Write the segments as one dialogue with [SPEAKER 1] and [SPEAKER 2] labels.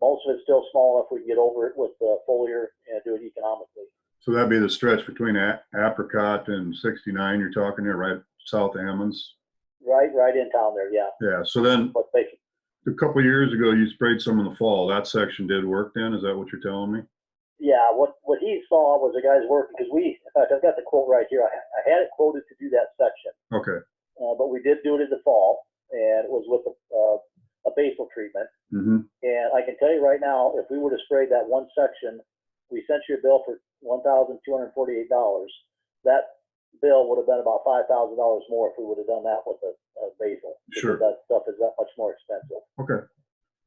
[SPEAKER 1] Most of it's still small if we can get over it with the foliar and do it economically.
[SPEAKER 2] So that'd be the stretch between A- Apricot and 69, you're talking there, right, south Ammons?
[SPEAKER 1] Right, right in town there, yeah.
[SPEAKER 2] Yeah, so then,
[SPEAKER 1] But they,
[SPEAKER 2] a couple years ago, you sprayed some in the fall. That section did work then, is that what you're telling me?
[SPEAKER 1] yeah, what, what he saw was the guys working, because we, in fact, I've got the quote right here. I, I had it quoted to do that section.
[SPEAKER 2] Okay,
[SPEAKER 1] Uh, but we did do it in the fall and it was with a, uh, a basal treatment.
[SPEAKER 2] hmm
[SPEAKER 1] And I can tell you right now, if we would have sprayed that one section, we sent you a bill for one thousand two hundred and forty-eight dollars. That bill would have been about five thousand dollars more if we would have done that with a, a basil. because
[SPEAKER 2] Sure.
[SPEAKER 1] That stuff is that much more expensive.
[SPEAKER 2] Okay.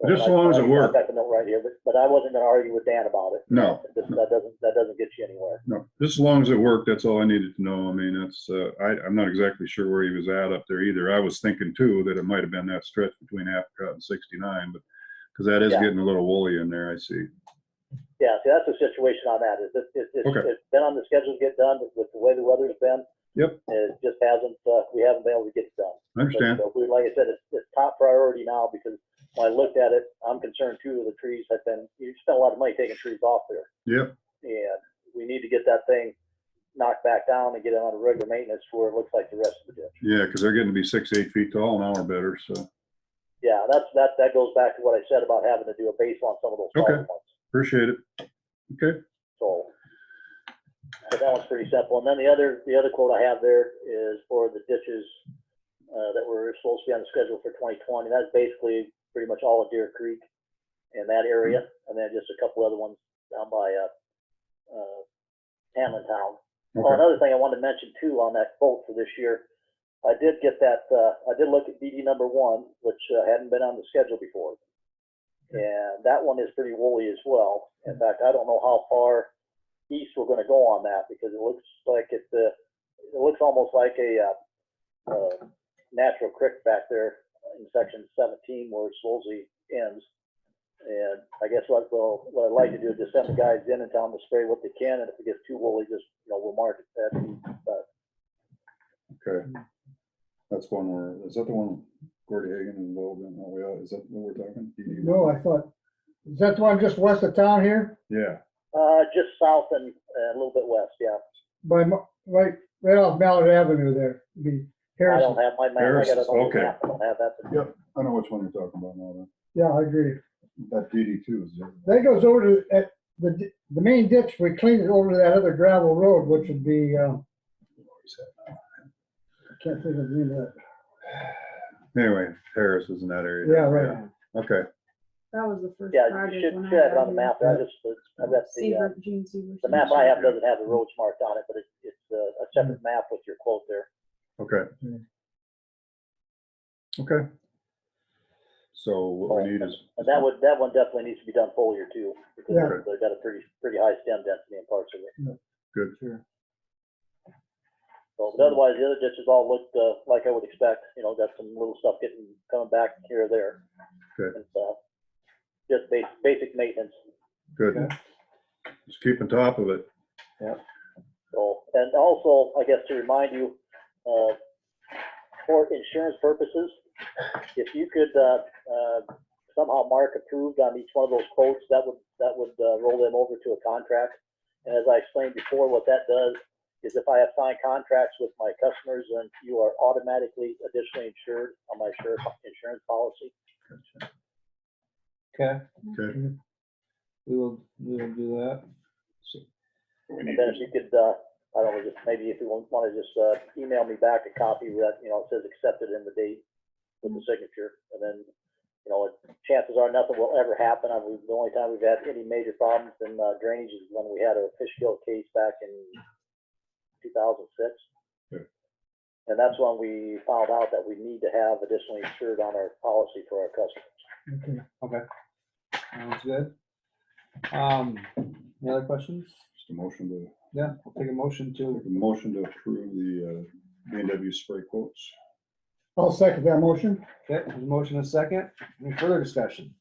[SPEAKER 1] So
[SPEAKER 2] Just as
[SPEAKER 1] I-
[SPEAKER 2] long as it
[SPEAKER 1] I-
[SPEAKER 2] worked.
[SPEAKER 1] I've got the note right here, but, but I wasn't gonna argue with Dan about it.
[SPEAKER 2] No.
[SPEAKER 1] That that doesn't, that doesn't get you anywhere.
[SPEAKER 2] No, just as long as it worked, that's all I needed to know. I mean, that's, uh, I, I'm not exactly sure where he was at up there either. I was thinking too that it might have been that stretch between Apricot and 69, but, because that is
[SPEAKER 1] Yeah.
[SPEAKER 2] getting a little woolly in there, I see.
[SPEAKER 1] Yeah, see, that's the situation on that, is it, it, it's,
[SPEAKER 2] Okay.
[SPEAKER 1] it's been on the schedule to get done with the way the weather's been.
[SPEAKER 2] Yep.
[SPEAKER 1] It just hasn't, uh, we haven't been able to get it done.
[SPEAKER 2] I understand.
[SPEAKER 1] But, uh, we- Like I said, it's, it's top priority now because when I looked at it, I'm concerned two of the trees have been, you spent a lot of money taking trees off there.
[SPEAKER 2] Yep,
[SPEAKER 1] And we need to get that thing knocked back down and get it on a regular maintenance to where it looks like the rest of the ditch.
[SPEAKER 2] yeah, because they're getting to be six, eight feet tall now or better, so
[SPEAKER 1] Yeah, that's, that, that goes back to what I said about having to do a base on some of those smaller
[SPEAKER 2] Okay.
[SPEAKER 1] ones.
[SPEAKER 2] appreciate it. Okay,
[SPEAKER 1] So, but that one's pretty simple. And then the other, the other quote I have there is for the ditches uh, that were supposed to be on the schedule for 2020. That's basically pretty much all of Deer Creek in that area, and then just a couple other ones down by uh, uh, Hamlin Town. Oh,
[SPEAKER 2] okay,
[SPEAKER 1] another thing I wanted to mention too on that quote for this year, I did get that, uh, I did look at DD number one, which uh, hadn't been on the schedule before. And that one is pretty woolly as well. In fact, I don't know how far east we're gonna go on that because it looks like it, uh, it looks almost like a, uh, uh, natural creek back there in section seventeen where Solzy ends. And I guess what, well, what I'd like to do is just send the guys in and tell them to spray what they can, and if it gets too woolly, just, you know, we'll mark it that.
[SPEAKER 2] okay. That's one where, is that the one Gordy Hagan involved in? Oh, yeah, is that what we're talking?
[SPEAKER 3] No, I thought, is that the one just west of town here?
[SPEAKER 2] Yeah,
[SPEAKER 1] Uh, just south and, uh, a little bit west, yeah.
[SPEAKER 3] By, Mo- right, right off Mallard Avenue there, the
[SPEAKER 1] I
[SPEAKER 3] Harrison.
[SPEAKER 1] don't have my map, I got
[SPEAKER 2] Harris,
[SPEAKER 1] an old
[SPEAKER 2] okay.
[SPEAKER 1] map, I don't have that.
[SPEAKER 2] I know which one you're talking about now,
[SPEAKER 3] Yeah, I agree.
[SPEAKER 2] that, that DD two is there.
[SPEAKER 3] That goes over to, at the, di- the main ditch, we cleaned it over to that other gravel road, which would be, um, I can't think of the name of that.
[SPEAKER 2] Anyway, Harris is in that area.
[SPEAKER 3] Yeah, right.
[SPEAKER 2] Okay,
[SPEAKER 4] That was the first
[SPEAKER 1] Yeah, you
[SPEAKER 4] project
[SPEAKER 1] should,
[SPEAKER 4] when
[SPEAKER 1] should
[SPEAKER 4] I
[SPEAKER 1] have it
[SPEAKER 4] got
[SPEAKER 1] on the
[SPEAKER 4] here.
[SPEAKER 1] map, I just, I've got the, uh,
[SPEAKER 4] Seaver, Gene Seaver.
[SPEAKER 1] the map I have doesn't have the roads marked on it, but it's, it's uh, a separate map with your quote there.
[SPEAKER 2] okay.
[SPEAKER 3] Yeah.
[SPEAKER 2] Okay. So what we need is,
[SPEAKER 1] And that would, that one definitely needs to be done foliar too, because
[SPEAKER 3] Yeah.
[SPEAKER 1] they've- they've got a pretty, pretty high stem density in parts of it.
[SPEAKER 2] good,
[SPEAKER 1] So, but otherwise, the other ditches all looked, uh, like I would expect, you know, got some little stuff getting, coming back here or there.
[SPEAKER 2] Good.
[SPEAKER 1] And, uh, just bas- basic maintenance,
[SPEAKER 2] good. Just keep on top of it.
[SPEAKER 1] so, and also, I guess to remind you, uh, for insurance purposes, if you could, uh, uh, somehow mark approved on each one of those quotes, that would, that would, uh, roll them over to a contract. And as I explained before, what that does is if I have signed contracts with my customers, then you are automatically additionally insured on my insur- insurance policy.
[SPEAKER 5] Okay,
[SPEAKER 2] Okay,
[SPEAKER 5] we will, we will do that.
[SPEAKER 1] And then if you could, uh, I don't know, just maybe if you want to just, uh, email me back a copy where that, you know, it says accepted in the date with the signature, and then, you know, chances are nothing will ever happen. I mean, the only time we've had any major problems in uh, drainage is when we had a fish kill case back in two thousand six.
[SPEAKER 2] Yeah.
[SPEAKER 1] And that's when we found out that we need to have additionally insured on our policy for our customers.
[SPEAKER 3] Okay.
[SPEAKER 5] Sounds good. Um, any other questions?
[SPEAKER 2] just a motion to,
[SPEAKER 5] Yeah, I'll take a motion to,
[SPEAKER 2] a motion to approve the uh, B and W spray quotes.
[SPEAKER 3] I'll second that motion.
[SPEAKER 5] okay, there's a motion and a second. Any further discussion?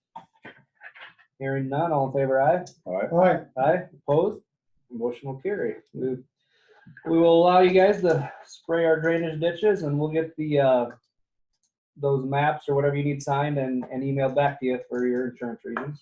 [SPEAKER 5] Hearing none, all in favor, aye?
[SPEAKER 2] All right,
[SPEAKER 3] All right,
[SPEAKER 5] Aye, opposed? Motion will carry. We we will allow you guys to spray our drainage ditches and we'll get the, uh, those maps or whatever you need signed and, and emailed back to you for your insurance reasons.